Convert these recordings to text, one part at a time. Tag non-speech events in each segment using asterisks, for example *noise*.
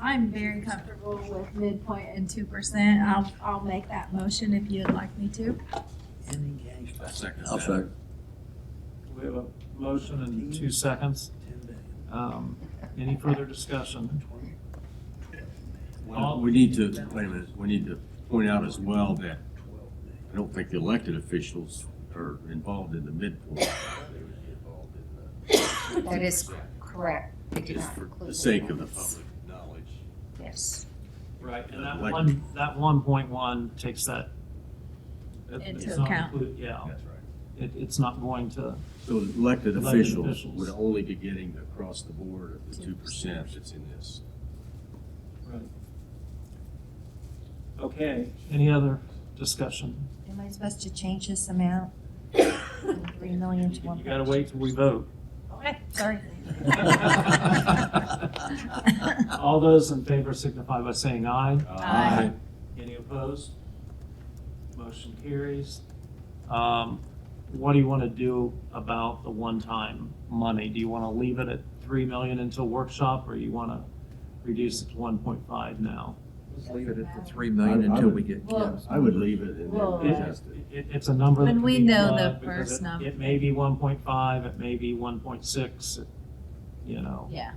I'm very comfortable with midpoint and two percent. I'll, I'll make that motion if you'd like me to. Ending cash by I second I'll that. second. We have a motion and two seconds. ten billion. Um, Any further discussion? Well, We need to, wait a minute, we need to point out as well that I don't think the elected officials are involved in the midpoint. That is correct. They do Just not for include the sake of the bonus. public knowledge. Yes. Right, and that one, that one point one takes that. it- it's Into not account. include- Yeah, right. it, it's not going to, So the elected Elected officials officials. would only be getting the across the board of the two percent that's in this. right. Okay, any other discussion? Am I supposed to change this amount? From Three million You to one? gotta wait till *laughs* we vote. *laughs* Okay, *laughs* sorry. All those in favor signify by saying aye. Aye. Any opposed? Motion carries. Um, What do you want to do about the one-time money? Do you want to leave it at 3 million until workshop, or you want to reduce it to 1.5 now? Let's leave it at the three million until we get, Well- I would leave it and Well, then adjust it. It- it- It's a number that When can we be know the plugged because first it- number. It may be 1.5, it may be 1.6, it- you know, Yeah,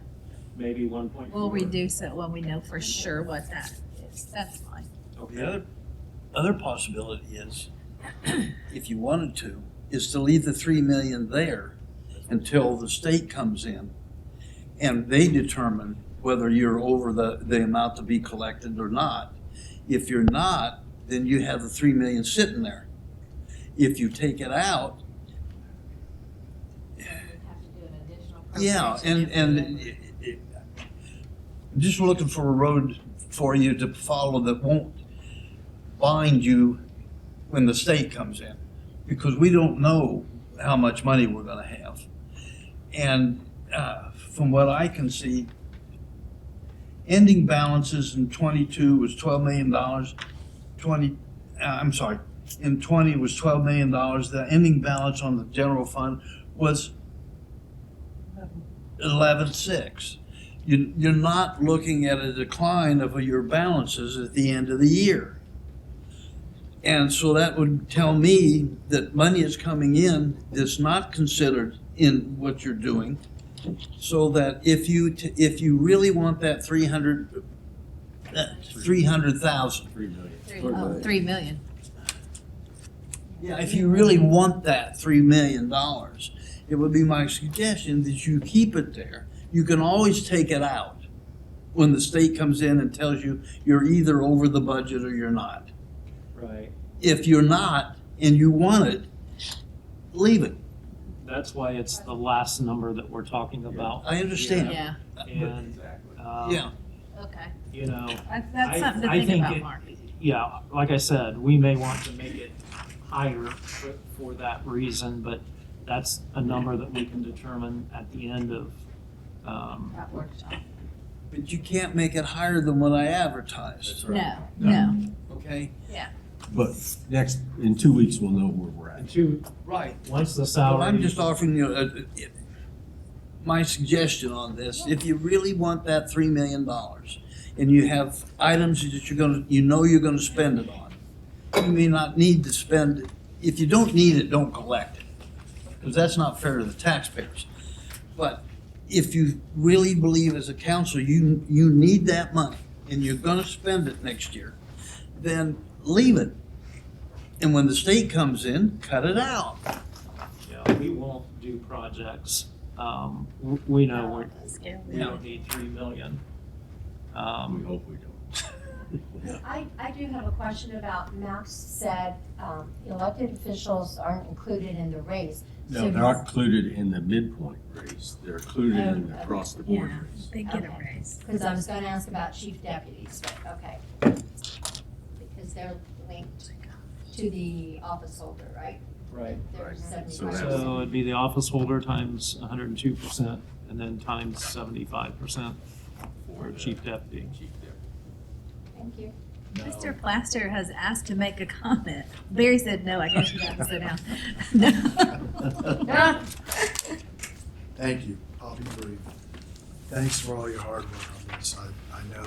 maybe 1.4. we'll reduce it when we know for sure what that is. That's fine. the other, other possibility is, if you wanted to, is to leave the three million there until the state comes in and they determine whether you're over the, the amount to be collected or not. If you're not, then you have the three million sitting there. If you take it out, Yeah, and, and it- it- just looking for a road for you to follow that won't bind you when the state comes in. Because we don't know how much money we're gonna have. And, uh, from what I can see, ending balances in twenty-two was twelve million dollars. Twenty, uh, I'm sorry, in twenty was twelve million dollars. The ending balance on the general fund was eleven six. You, you're not looking at a decline of your balances at the end of the year. And so that would tell me that money is coming in that's not considered in what you're doing. So that if you, t- if you really want that three hundred, that three hundred thousand, Three million. Three, Three oh, million. three million. Yeah, if you really want that three million dollars, it would be my suggestion that you keep it there. You can always take it out when the state comes in and tells you you're either over the budget or you're not. Right. If you're not and you want it, leave it. That's why it's the last number that we're talking about. I understand. Yeah, And, um, Yeah. okay. you know, That's, I- that's something to I think think about, it- Mark. yeah, like I said, we may want to make it higher for, for that reason, but that's a number that we can determine at the end of, um, That workshop. But you can't make it higher than what I advertised, No, No. no. okay? But next, in two weeks, we'll know where we're at. and two, Right. once the Well, salary. I'm just offering you a, a- my suggestion on this. If you really want that three million dollars and you have items that you're gonna, you know you're gonna spend it on, you may not need to spend it. If you don't need it, don't collect it, because that's not fair to the taxpayers. But if you really believe as a council, you, you need that money and you're gonna spend it next year, then leave it. And when the state comes in, cut it out. Yeah, we won't do projects, um, w- we know we're, we Yeah. don't need three million. We Um, hope we don't. I, I do have a question about, Max said um, elected officials aren't included in the raise. No, they're not included in the midpoint raise. They're included in the across the board Yeah. raise. They get a raise. Because I was going to ask about chief deputies, but okay. Because they're linked to the office holder, right? right. They're Right. So seventy-five that's- So percent. it'd be the office holder times hundred and two percent, and then times seventy-five percent for the chief deputy. chief deputy. Thank you. Mr. Plaster has asked to make a comment. Barry said, no, I guess you have to sit down. *laughs* *laughs* *laughs* No. Thank you. I'll be brief. Thanks for all your hard work on this. I, I know